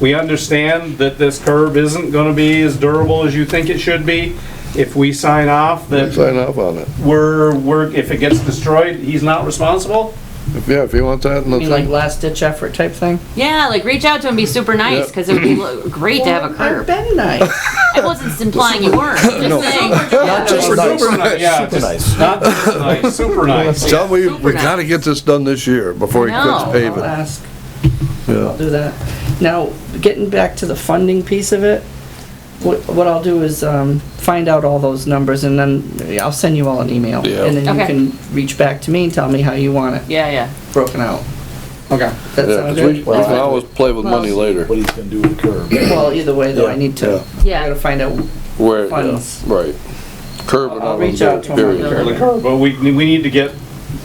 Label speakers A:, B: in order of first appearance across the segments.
A: We understand that this curb isn't gonna be as durable as you think it should be. If we sign off that
B: Sign off on it.
A: we're, we're, if it gets destroyed, he's not responsible?
B: If- Yeah, if you want that in the
C: You mean like
B: thing.
C: last ditch effort type thing?
D: Yeah, like reach out to him, be super nice,
B: Yeah.
D: because it would be lo- great to have a
C: I've
D: curb.
C: been nice.
D: I wasn't implying you weren't. I'm
B: No.
D: just saying.
C: Not just
A: Super
C: nice.
A: ni- Yeah,
E: Super
A: just not just nice, super nice.
B: Tell me,
D: Super
B: we gotta
D: nice.
B: get this done this year before he quits
D: No.
C: I'll
B: paving.
C: ask, I'll
B: Yeah.
C: do that. Now, getting back to the funding piece of it, what, what I'll do is, um, find out all those numbers and then I'll send you all an email.
B: Yeah.
C: And then you
D: Okay.
C: can reach back to me and tell me how you want it
D: Yeah, yeah.
C: broken out.
A: Okay.
C: That
B: Yeah,
C: sound
B: 'cause we, we
C: good?
B: can always play with money
C: Well,
B: later.
E: what he's gonna do with the curb.
C: Well, either way though, I
E: Yeah,
C: need to, I gotta
D: Yeah.
C: find out,
B: Where,
C: funds.
B: right. Curb and
C: I'll
B: all
C: reach out
B: that,
C: to him.
B: period.
A: The curb, But we, we need to get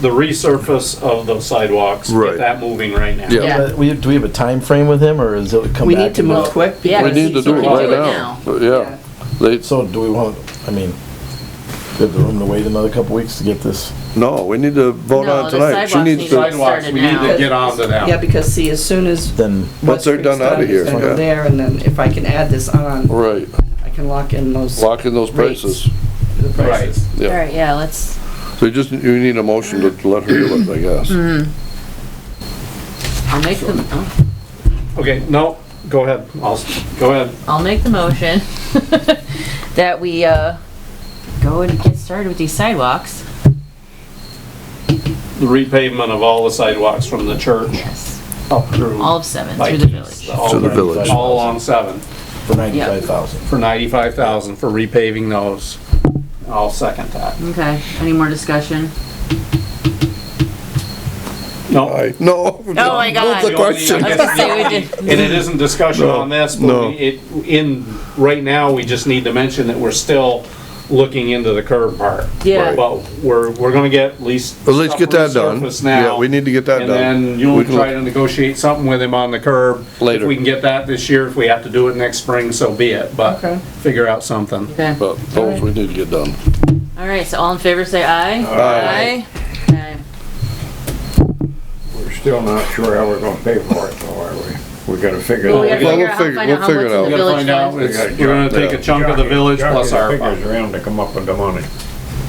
A: the resurface of those sidewalks,
B: Right.
A: get that moving right now.
B: Yeah.
C: Yeah.
E: Uh, We, do we have a time frame with him, or is it come back?
C: we need to
E: and-
C: move quick.
D: Yeah,
B: We
C: because
B: need to
C: he's
B: do it right
C: already-
D: do
B: now.
D: it now.
B: But Yeah. They,
E: So do we want, I mean, do we have the room to wait another couple weeks to get this?
B: no, we need to vote
D: No,
B: on it
D: the
B: tonight. She needs
D: sidewalks need
B: to,
D: to-
A: Sidewalks, we need to
D: now.
A: get on to that.
C: Yeah, because see, as soon as
E: Then,
B: Once they're
C: Westwick's
B: done outta
C: done,
B: here,
C: it's gonna
B: yeah.
C: go There, and then if I can add this on,
B: right,
C: I can lock in those,
B: lock in those
C: Rates.
B: prices.
C: the
A: Right.
C: prices.
D: All
B: Yeah.
D: right, yeah, let's,
B: So you just, you need a motion to let her do it, I
C: Mm-hmm.
B: guess.
D: I'll make the,
A: Okay, no, go ahead, I'll, s- go ahead.
D: I'll make the motion that we, uh, go and get started with these sidewalks.
A: The repavement of all the sidewalks from the church
D: Yes,
A: up through.
D: all of seven through
A: Like,
D: the village.
A: all-
B: To the village.
A: All along seven,
E: for ninety-five thousand.
A: for ninety-five thousand for repaving those. I'll second that.
D: Okay, any more discussion?
A: No,
B: I, no.
D: Oh my God.
B: Move the question.
D: I was gonna say we did-
A: and it isn't discussion
B: No,
A: on this,
B: no.
A: but we- it, in, right now, we just need to mention that we're still looking into the curb part.
D: Yeah.
A: But we're, we're gonna get at least.
B: But let's get that done.
A: surface now.
B: Yeah, we need to get that
A: And
B: done.
A: then
B: We
A: you'll
B: can-
A: try to negotiate something with him on the curb.
B: Later.
A: If we can get that this year, if we have to do it next spring, so be it, but
C: Okay.
A: figure out something.
D: Okay,
B: But those we need to get done.
D: all right, so all in favor, say aye.
B: Aye.
D: Okay.
F: We're still not sure how we're gonna pay for it, though, are we? We gotta figure
D: Well, we gotta
B: Well,
D: figure
B: we'll
D: out how,
B: figure-
D: find
B: we'll
D: out how
B: figure
D: much
B: it out.
D: the
A: We gotta
D: village
A: find out,
D: does.
A: it's- we're gonna take a chunk of the village plus our,
F: Jockey the figures around to come up with the money.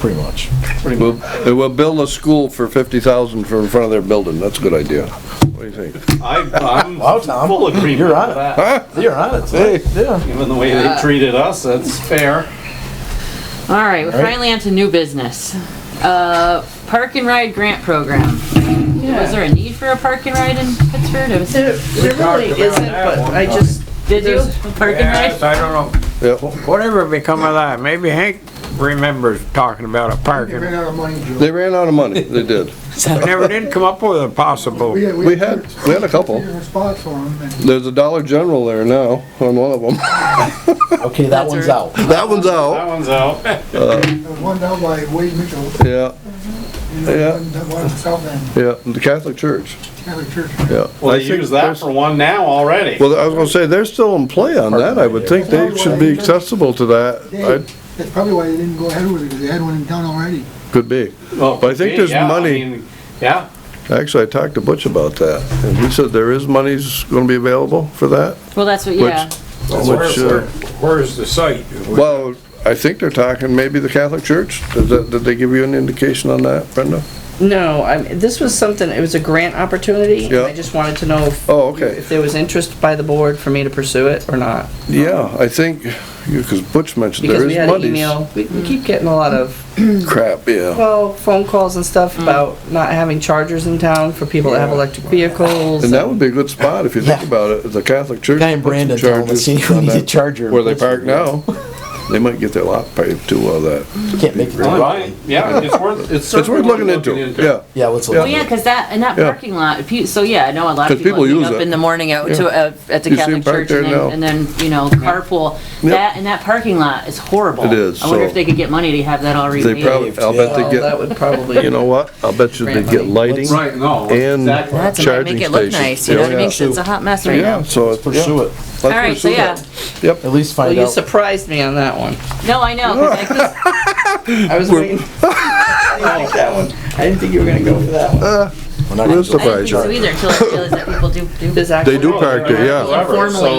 E: Pretty much.
B: We'll, we'll build a school for fifty thousand from in front of their building, that's a good idea. What do you think?
A: I, I'm
E: Wow, Tom.
A: full agreement
E: You're
A: with
E: on it.
A: that.
E: You're on it, so, yeah.
A: Even the way they treated us, that's fair.
D: All right, we're
E: All right.
D: finally onto new business. Uh, park and ride grant program. Was there a need for a park and ride in Pittsburgh? It was-
C: There there really
F: about
C: isn't,
F: that
C: but
F: one
C: I
F: time.
C: just,
D: Did you,
C: There's-
D: a park and ride?
F: I don't know.
B: Yeah,
F: Whatever become of that, maybe Hank remembers talking about a parking. We
B: they ran out of money, they did.
F: never did come up with a possible.
G: We had,
B: We had, we had a couple.
G: a spot for them, and
B: There's a Dollar General there now, on one of them.
E: Okay, that
D: That's
E: one's
D: right.
E: out.
B: That one's
A: That
B: out,
A: one's out.
G: there was one down by Wade Mitchell,
B: yeah,
G: and there was
B: Yeah.
G: one down by the south end,
B: yeah, the Catholic Church,
G: Catholic Church.
B: yeah.
A: Well,
B: I
A: they
B: think
A: use that
B: there's-
A: for one now already.
B: Well, I was gonna say, they're still in play on that, I would think they should be accessible to that, I,
G: That's probably why they didn't go ahead with it, because they had one in town already.
B: could be.
A: Well,
B: but I think there's
A: yeah, I
B: money.
A: mean, Yeah,
B: Actually, I talked to Butch about that, and he said there is money's gonna be available for that,
D: Well, that's what,
B: which,
D: yeah.
B: which, uh,
F: Where's the site?
B: Well, I think they're talking maybe the Catholic Church. Did, that, did they give you an indication on that, Brenda?
C: no, I, this was something, it was a grant opportunity, and I
B: Yeah.
C: just wanted to know if,
B: Oh, okay.
C: if there was interest by the board for me to pursue it or not.
B: Yeah, I think, because Butch mentioned
C: Because
B: there
C: we
B: is
C: had an
B: money's
C: email, we,
F: Mm.
C: we keep getting a lot of,
B: crap, yeah.
C: well, phone calls and stuff
F: Mm.
C: about not having chargers in town for people that have electric vehicles.
B: And that would be a good spot if you think
E: Yeah.
B: about it, the Catholic Church.
E: Guy in
B: put some
E: Brandon told me,
B: charges
E: "See, we
B: on
E: need a
B: that-
E: charger."
B: Where they park now. They might get their lot paved too well that.
E: Can't make it. to
A: Well,
E: Rockland.
A: right, yeah, it's worth, it's
B: It's
A: certainly
B: worth looking into, yeah.
E: Yeah, let's
D: Well,
E: look.
D: yeah, cause that, in that
B: Yeah.
D: parking lot, pe- so yeah, I know a lot
B: 'Cause
D: of people
B: people
D: meet
B: use
D: up
B: it.
D: in the morning out to,
B: Yeah.
D: uh, at the
B: You see 'em
D: Catholic
B: parked
D: church
B: there
D: and
B: now.
D: then, and then, you know, carpool.
B: Yep.
D: That, and that parking lot is horrible.
B: It is,
D: I wonder
B: so-
D: if they could get money to have that all
B: They
D: repaved.
B: probably, I'll bet
C: Well,
B: they
C: that
B: get,
C: would probably.
B: you know what? I'll bet you they get lighting
A: Right, no,
B: and
A: exactly.
D: That's, it might
B: charging
D: make it
B: stations.
D: look nice, you know
B: Yeah,
D: what I mean?
B: yeah.
D: 'Cause It's a hot mess right
B: Yeah,
D: now.
B: so. it's- yeah.
E: Pursue it.
B: Let's
D: All right, so
B: pursue
D: yeah.
B: that. Yep.
E: At least
C: Well,
E: find
C: you
E: out.
C: surprised me on that one.
D: No, I know, 'cause I keep
C: I was waiting. I didn't think that one, I didn't think you were gonna go for that one.
H: We're not gonna
C: Where's the
H: do it.
B: I didn't think so either until I realized that people do, do.
D: There's actually.
C: They do park there, yeah.
A: Whoever, so-